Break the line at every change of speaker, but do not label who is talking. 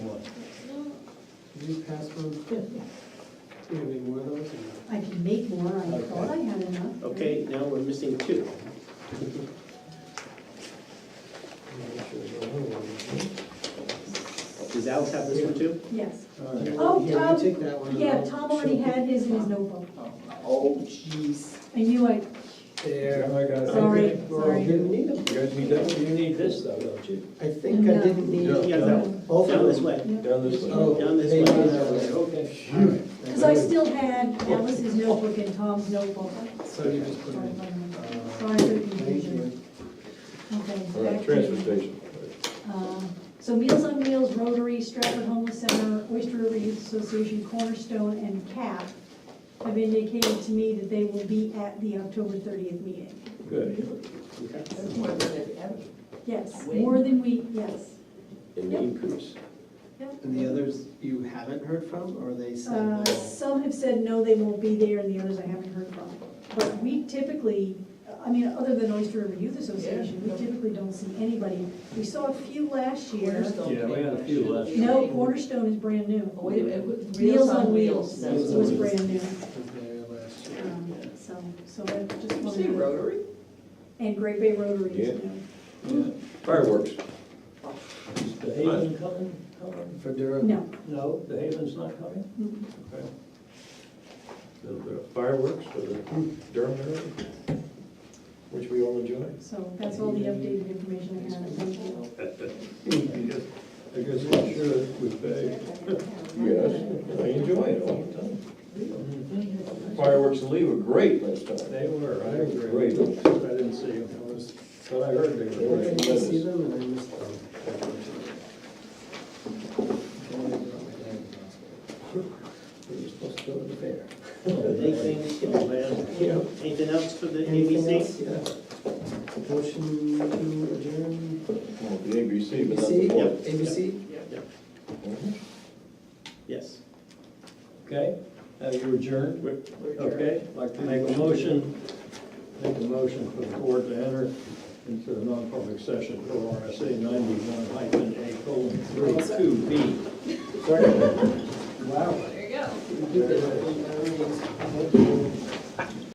Any password? Do you have any more of those? or
I can make more, I
Okay.
thought I had enough.
Okay, now we're missing two.
no? Make sure there's no other one.
Does Alex have this one too?
Yes.
All right.
Oh,
Here, you
Tom-
take that one.
Yeah, Tom already had his in his notebook.
Oh, jeez.
I knew I,
There.
I got it.
Oh.
Sorry,
Well,
sorry.
you didn't need them.
You guys need that, you need this though, don't you?
I think I
No.
didn't need
No.
Yeah, down,
both
down
of
this
them.
way.
Down this
Oh.
way.
Down this
they
way.
go that way.
Okay.
All right.
because I still had Alice's notebook and Tom's notebook.
So you just put
Sorry,
it. uh,
one minute. Sorry for the
Thank
confusion.
you.
Okay.
All
back
right,
to-
transfer station.
Um, So Meals on Wheels, Rotary, Stratford Homeless Center, Oyster River Youth Association, Cornerstone, and CAP have indicated to me that they will be at the October 30th meeting.
Good.
Okay.
That's more than it ever.
Yes, more than we, yes.
And the increase.
And the others you haven't heard from, or they said?
Uh,
no?
Some have said, no, they won't be there, and the others I haven't heard from. But we typically, I mean, other than Oyster River Youth Association, we
Yeah.
typically don't see anybody. We saw a few last year.
Yeah, we had a few last year.
No, Cornerstone is brand new.
Oh, Wait a minute,
Meals on Wheels
that's
was
what it
brand new.
Was there last year.
Um, So, so I just
is. You say
wanted,
Rotary?
and Great Bay Rotary
Yeah.
is new.
Fireworks.
The Haven coming, coming?
For Durham?
No,
No?
The Haven's not coming?
mm,
Little bit of Fireworks for the Durham area, which we all enjoy.
so that's all the updated information I have. Thank you.
I guess we're sure that we pay. Yes, I enjoy it all the time. Fireworks in Lee were great last time.
They were, I agree.
Great.
I didn't see them.
That was-
But I heard they were.
I didn't see them and I missed them.
We were supposed to go to the fair.
Big things, you know, man.
Yeah.
Anything else for the
Anything
ABC?
else? Yeah. Motion to adjourn?
Well, the ABC, but not the
ABC?
fourth.
ABC?
Mhm.
Yes.
Okay, now you're adjourned?
We're-
Okay, I'd like to make a motion, make a motion for the board to enter into the non-public session for RSA ninety-one hyphen A colon three two B.
Wow.
There you go.
We did it.